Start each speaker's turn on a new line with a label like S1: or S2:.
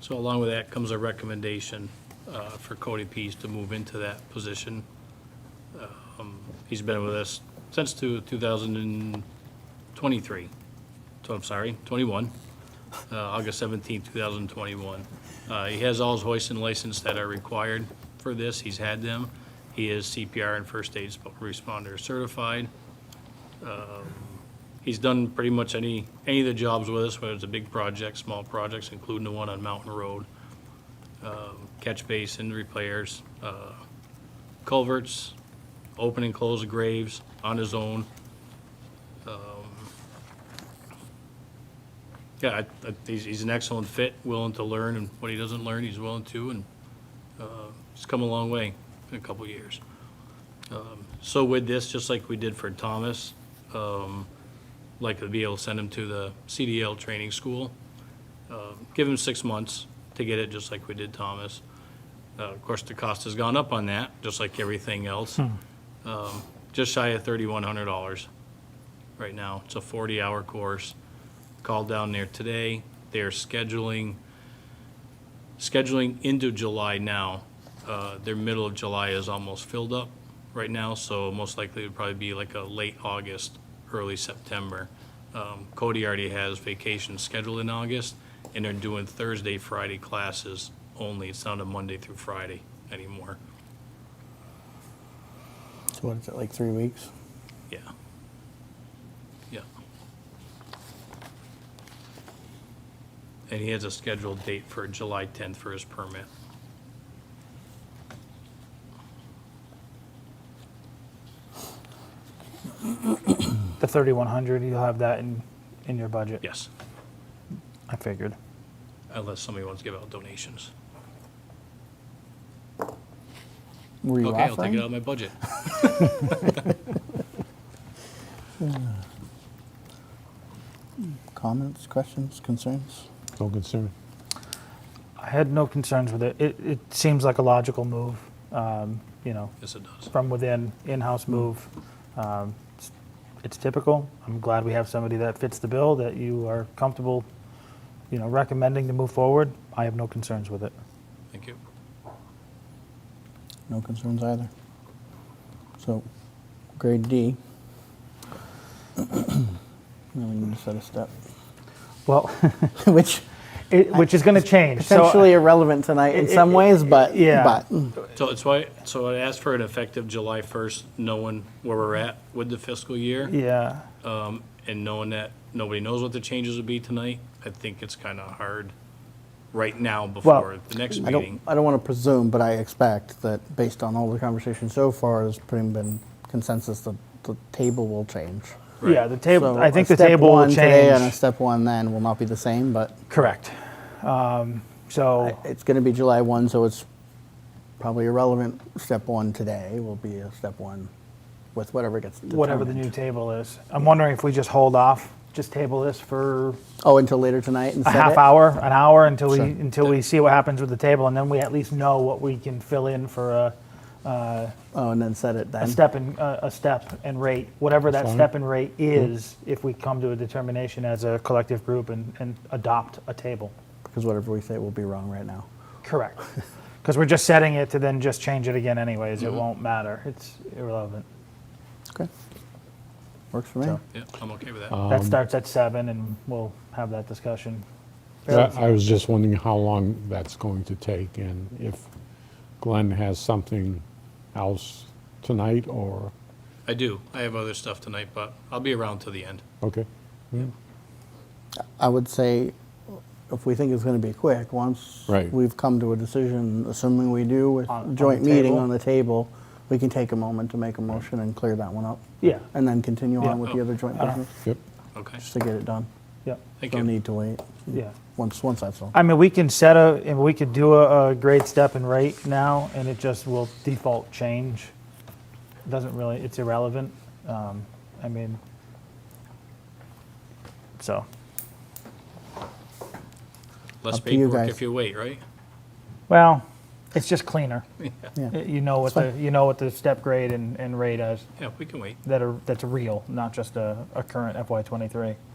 S1: So along with that comes a recommendation uh, for Cody Pease to move into that position. Um, He's been with us since two- 2023, so I'm sorry, 21, uh, August 17, 2021. Uh, He has all his hoist and license that are required for this, he's had them. He is CPR and first aid responder certified. He's done pretty much any, any of the jobs with us, whether it's a big project, small projects, including the one on Mountain Road. um, Catch basin repairs, uh, culverts, open and close graves on his own. Um, Yeah, I- I- he's, he's an excellent fit, willing to learn, and what he doesn't learn, he's willing to, and uh, he's come a long way in a couple of years. Um, So with this, just like we did for Thomas, um, like to be able to send him to the CDL training school. Uh, Give him six months to get it, just like we did Thomas. Uh, Of course, the cost has gone up on that, just like everything else. Um, Just shy of thirty-one hundred dollars right now. It's a forty-hour course. Called down there today. They are scheduling, scheduling into July now. Uh, Their middle of July is almost filled up right now, so most likely it'd probably be like a late August, early September. Um, Cody already has vacation scheduled in August, and they're doing Thursday, Friday classes only. It's not a Monday through Friday anymore.
S2: So what is it, like three weeks?
S1: Yeah. Yeah. And he has a scheduled date for July 10th for his permit.
S3: The 3100, you'll have that in, in your budget.
S1: Yes,
S3: I figured.
S1: unless somebody wants to give out donations.
S2: Were you
S1: Okay, I'll take
S2: offering?
S1: it out of my budget.
S2: Comments, questions, concerns?
S4: No concern.
S3: I had no concerns with it. It, it seems like a logical move, um, you know,
S1: Yes, it does.
S3: from within, in-house move. Um, it's- It's typical. I'm glad we have somebody that fits the bill, that you are comfortable, you know, recommending to move forward. I have no concerns with it.
S1: Thank you.
S2: No concerns either. So, grade D. Now we need to set a step,
S3: Well,
S2: which
S3: it, which is going to change. So-
S2: potentially irrelevant tonight in
S3: uh, It-
S2: some
S3: it-
S2: ways, but,
S3: yeah.
S2: but,
S1: So it's why, so I asked for an effective July 1st, knowing where we're at with the fiscal year.
S3: Yeah,
S1: um, And knowing that nobody knows what the changes would be tonight, I think it's kind of hard right now before the next
S2: I
S1: meeting.
S2: don't, I don't want to presume, but I expect that based on all the conversation so far, there's pretty been consensus that the table will change.
S1: Right.
S3: yeah, the table,
S2: So
S3: I
S2: a
S3: think the
S2: step
S3: table will
S2: one Today and a
S3: change.
S2: step one then will not be the same, but
S3: Correct. Um, So,
S2: It's going to be July 1, so it's probably irrelevant. Step one today will be a step one with whatever gets determined.
S3: whatever the new table is. I'm wondering if we just hold off, just table this for
S2: Oh, until later tonight and
S3: a
S2: set
S3: half
S2: it?
S3: hour, an hour until we
S2: Sure.
S3: until we see what happens with the table, and then we at least know what we can fill in for a,
S2: Oh, and then set it
S3: a
S2: then.
S3: step and a a step and rate, whatever that
S4: Fine.
S3: step and rate is, if we come to a determination as a collective group and, and adopt a table.
S2: Because whatever we say will be wrong right now.
S3: Correct. Because we're just setting it to then just change it again anyways. It won't matter. It's irrelevant.
S2: Okay. Works for me.
S3: So-
S1: Yeah, I'm okay with that.
S2: Uh,
S3: that starts at seven, and we'll have that discussion.
S4: I I was just wondering how long that's going to take and if Glenn has something else tonight or,
S1: I do. I have other stuff tonight, but I'll be around till the end.
S4: okay.
S2: I would say, if we think it's going to be quick, once
S4: Right.
S2: we've come to a decision, assuming we do with
S3: On- on
S2: joint
S3: the
S2: meeting
S3: table?
S2: on the table, we can take a moment to make a motion and clear that one up.
S3: Yeah.
S2: And then continue
S3: Yeah.
S2: on with the
S1: Oh.
S2: other joint business,
S4: Yep,
S1: Okay,
S2: just to get it done.
S3: Yeah.
S1: thank
S2: No
S1: you.
S2: need to wait,
S3: Yeah.
S2: once, once that's all.
S3: I mean, we can set a, and we could do a, a grade step and rate now, and it just will default change. Doesn't really, it's irrelevant. Um, I mean, so,
S1: Less
S2: Up to you
S1: paperwork
S2: guys.
S1: if you wait, right?
S3: well, it's just cleaner.
S2: Yeah.
S3: Y- You know what the, you know what the step grade and, and rate is
S1: Yeah, we can wait.
S3: that are, that's real, not just a, a current FY twenty-three.